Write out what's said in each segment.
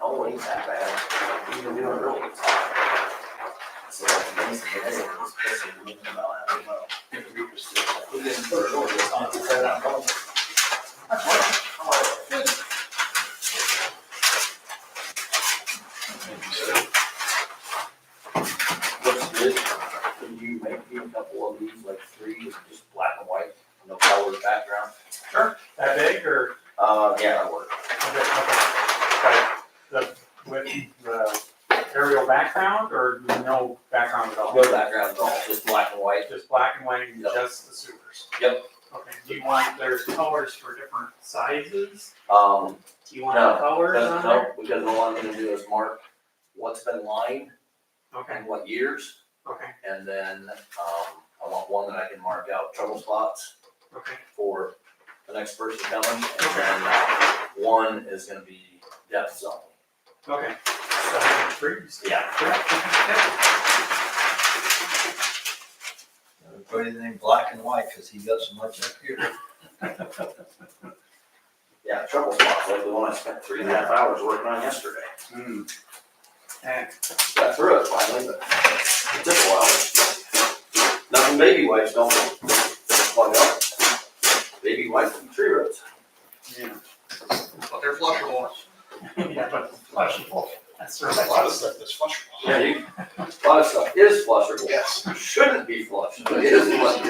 Oh, it ain't that bad. You can do it early. So that's amazing. That's a- that's a good thing about it. I don't know. If you're interested, we didn't put it over, it's not- it's not on. That's right. How are you? What's this? Can you make me a couple of these, like three, just black and white, no color background? That big or? Uh, yeah, that works. okay, okay. Like, The, with the aerial background or no background at all? No background at all, just black and white. Just black and white and just the sewers? Yep. Okay, do you want, there's colors for different sizes? Um, Do you want No, the colors Doesn't on help, there? because all I'm gonna do is mark what's been lined Okay, and what years, okay, and then, um, I want one that I can mark out trouble spots okay, for the next person coming, and then uh, one is gonna be depth zone. okay. So, I'm intrigued. Yeah. Yeah, Never Put anything black and white, cause he got so much up here. Yeah, trouble spots, like the one I spent three and a half hours working on yesterday. okay. Hmm. And, Got through it finally, but it took a while. Nothing baby wipes don't plug up. Baby wipes from tree roots. yeah. But they're flushable. Yeah, but flushable, that's There's a lot of right. stuff that's flushable. Yeah, you, a lot of stuff is flusherable. Yes. shouldn't be flushed, but it is flushed.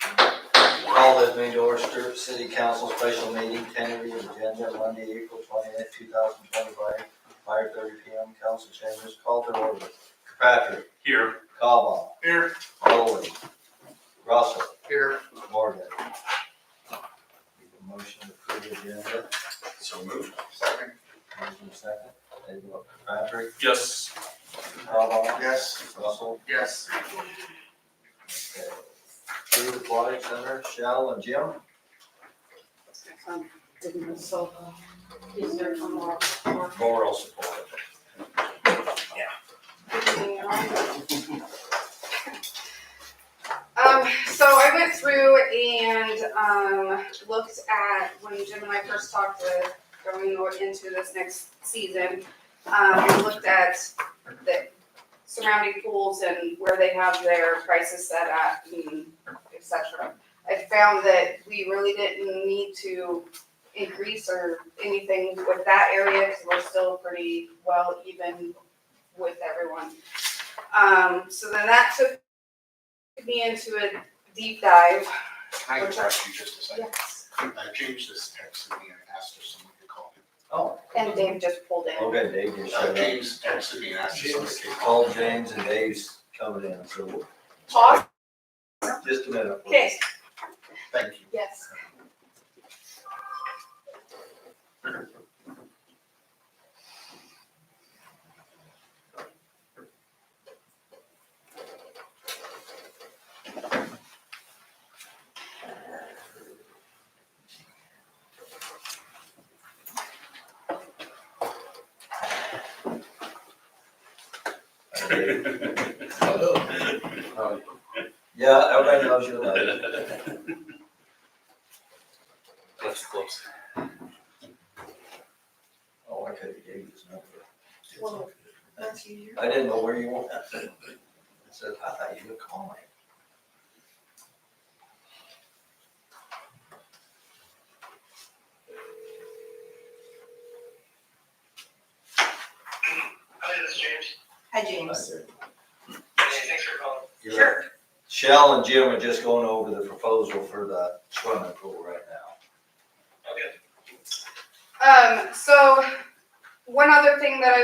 Call this New Dorchester City Council special meeting, tentative agenda Monday, April twenty-eighth, two thousand twenty-five, five thirty P M, council chambers, call to order. Patrick, Here. Cobba, Here, Owen, Russell, here. Morgan. Need a Motion to approve the agenda, So moved. Second. motion second, they go Patrick, Yes. Cobba, Yes. Russell. Yes. okay. Approve aquatic center, Shell and Jim. Um, didn't resolve. Is there some more? Moral support. Um, so I went through and, um, looked at, when Jim and I first talked to, going into this next season, um, we looked at the surrounding pools and where they have their prices set at and et cetera. I found that we really didn't need to increase or anything with that area, because we're still pretty well even with everyone. Um, so then that took me into a deep dive. I can ask you just a second. Yes. I changed this text to me and asked if someone could call him. Oh. And Dave just pulled in. Okay, Dave just Uh, showed up. James texted me and asked if someone could call. Call James and Dave's coming in, so we'll- Pause. just a minute. please. Okay, Thank you. yes. Hi, Uh, Dave. Hi. Yeah, everybody loves you, love. That's close. Oh, I could have gave you this number. Well, I didn't know where you went. I said, I thought you were calling. Hi, this is James. Hi, Hi, James. Dave. Hey, thanks for calling. You're- Shell and Jim are just going over the proposal for the swimming pool right now. Okay. Um, so one other thing that I